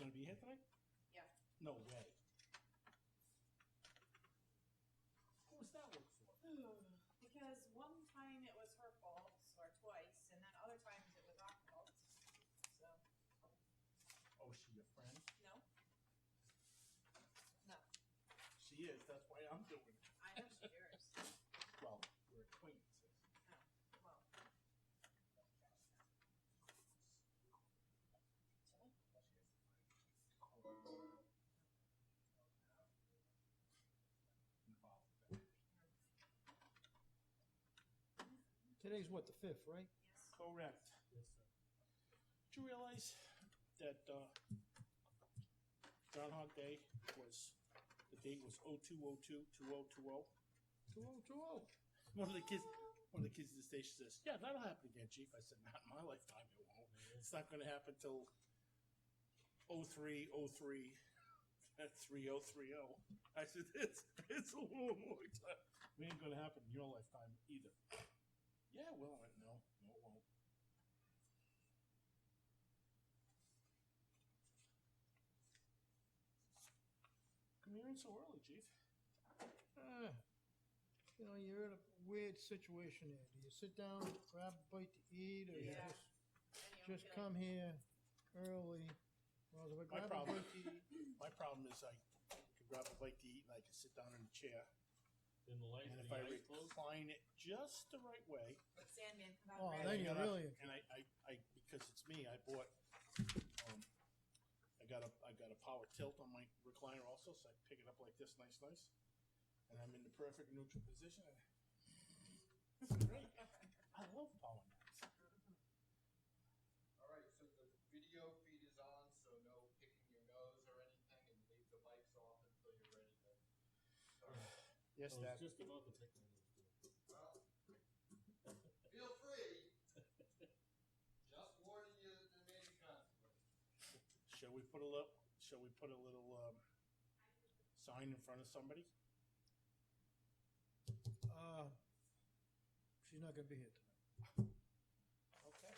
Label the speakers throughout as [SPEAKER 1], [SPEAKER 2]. [SPEAKER 1] Anthony?
[SPEAKER 2] Yeah.
[SPEAKER 1] No way. Who was that work for?
[SPEAKER 2] Hmm, Because one time it was her fault, or twice, and then other times it was our fault. So,
[SPEAKER 1] Oh, she your friend?
[SPEAKER 2] no,
[SPEAKER 1] She is, that's why I'm doing it.
[SPEAKER 2] I know she's yours.
[SPEAKER 1] Well, we're acquaintances.
[SPEAKER 2] Well,
[SPEAKER 1] Involved with that.
[SPEAKER 3] Today's what, the fifth, right?
[SPEAKER 2] yes.
[SPEAKER 1] Correct.
[SPEAKER 3] Yes, sir.
[SPEAKER 1] Did you realize that uh, Groundhog Day was, the date was 0202 2020?
[SPEAKER 3] Two oh, two oh.
[SPEAKER 1] One of the kids, one of the kids at the station says, "Yeah, that'll happen again, Chief." I said, "Not in my lifetime, it won't. It's not going to happen till 03, 03, 3030." I said, "It's it's a long, long time. It ain't going to happen in your lifetime either." Yeah, it will. I went, no, no, it won't. Come here in so early, Chief.
[SPEAKER 3] Ah, you know, you're in a weird situation here. Do you sit down, grab a bite to eat, or you
[SPEAKER 1] Yeah.
[SPEAKER 3] just,
[SPEAKER 2] And you
[SPEAKER 3] just
[SPEAKER 2] don't
[SPEAKER 3] come here early? Well, if I grab a
[SPEAKER 1] problem.
[SPEAKER 3] bite to eat-
[SPEAKER 1] My problem is I can grab a bite to eat and I can sit down in a chair.
[SPEAKER 4] In the light,
[SPEAKER 1] And if
[SPEAKER 4] the
[SPEAKER 1] I
[SPEAKER 4] eyes closed.
[SPEAKER 1] recline it just the right way,
[SPEAKER 2] feel- Sandman, come out.
[SPEAKER 3] Oh,
[SPEAKER 2] and
[SPEAKER 3] there
[SPEAKER 2] grab
[SPEAKER 3] you
[SPEAKER 2] it.
[SPEAKER 3] go.
[SPEAKER 1] and I-
[SPEAKER 3] really?
[SPEAKER 1] and I, I, I, because it's me, I bought, um, I got a, I got a power tilt on my recliner also, so I pick it up like this, nice, nice, and I'm in the perfect neutral position. And this is great. I love power naps.
[SPEAKER 5] All right, so the video feed is on, so no picking your nose or anything, and leave the mics off until you're ready to. start.
[SPEAKER 1] Yes,
[SPEAKER 4] I was
[SPEAKER 1] Dad.
[SPEAKER 4] Oh, just about to pick one of those.
[SPEAKER 5] Well, feel free. Just warning you that there may be consequences.
[SPEAKER 1] Shall we put a little? Shall we put a little um, sign in front of somebody?
[SPEAKER 3] Uh, she's not gonna be here tonight.
[SPEAKER 1] Okay.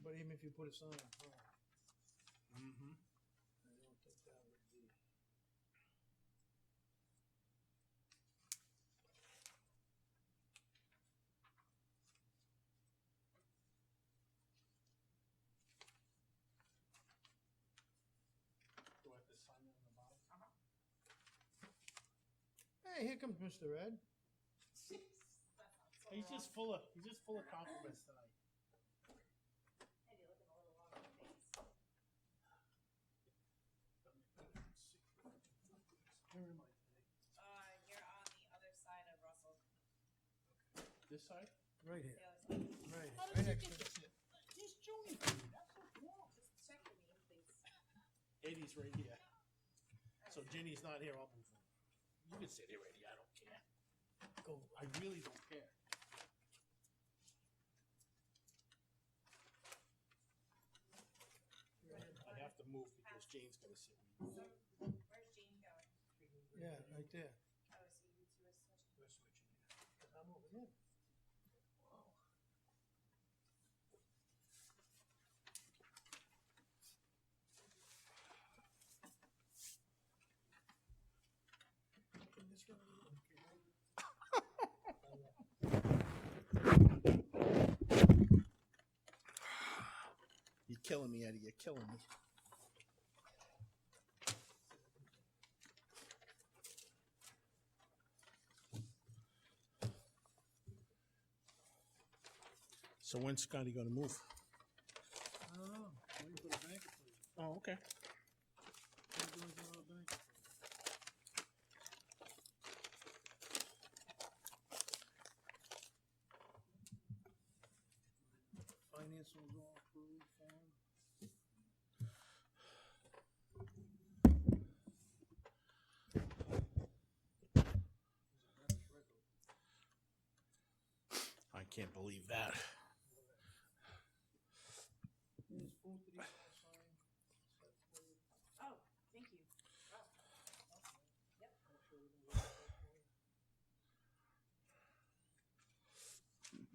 [SPEAKER 3] But even if you put oh. a sign on, her,
[SPEAKER 1] Mm-hmm.
[SPEAKER 3] I don't think that would be.
[SPEAKER 1] Do I have to sign in on the bottom?
[SPEAKER 3] Hey, here comes Mr. Ed.
[SPEAKER 2] Jeez, that sounds so
[SPEAKER 1] He's
[SPEAKER 2] wrong.
[SPEAKER 1] just full of he's just full of compliments tonight.
[SPEAKER 2] Hey, you're looking a little long in the face.
[SPEAKER 1] Where am I today?
[SPEAKER 2] Uh, you're on the other side of Russell.
[SPEAKER 1] This side?
[SPEAKER 3] Right
[SPEAKER 2] The
[SPEAKER 3] here,
[SPEAKER 2] other side.
[SPEAKER 3] right here.
[SPEAKER 1] How
[SPEAKER 3] Right
[SPEAKER 1] did you
[SPEAKER 3] next
[SPEAKER 1] get
[SPEAKER 3] to
[SPEAKER 1] this? He's joining me. That's what's wrong.
[SPEAKER 2] Just check your name, please.
[SPEAKER 1] Eddie's right here. So Jenny's not here. I'll move on. You can sit here, Eddie. I don't care. Go. I really don't care. I have to move because Jane's gonna sit with me.
[SPEAKER 2] So, where's Jane going?
[SPEAKER 3] Yeah, right there.
[SPEAKER 2] Oh, so you two are switching.
[SPEAKER 1] We're switching here.
[SPEAKER 3] I'm over here.
[SPEAKER 1] You're killing me, Eddie. You're killing me. So when's Scotty gonna move?
[SPEAKER 3] I don't know. What do you put a bank for?
[SPEAKER 1] Oh, okay.
[SPEAKER 3] What do you do with a bank? Finance will go through form.
[SPEAKER 1] I can't believe that.
[SPEAKER 3] There's food to these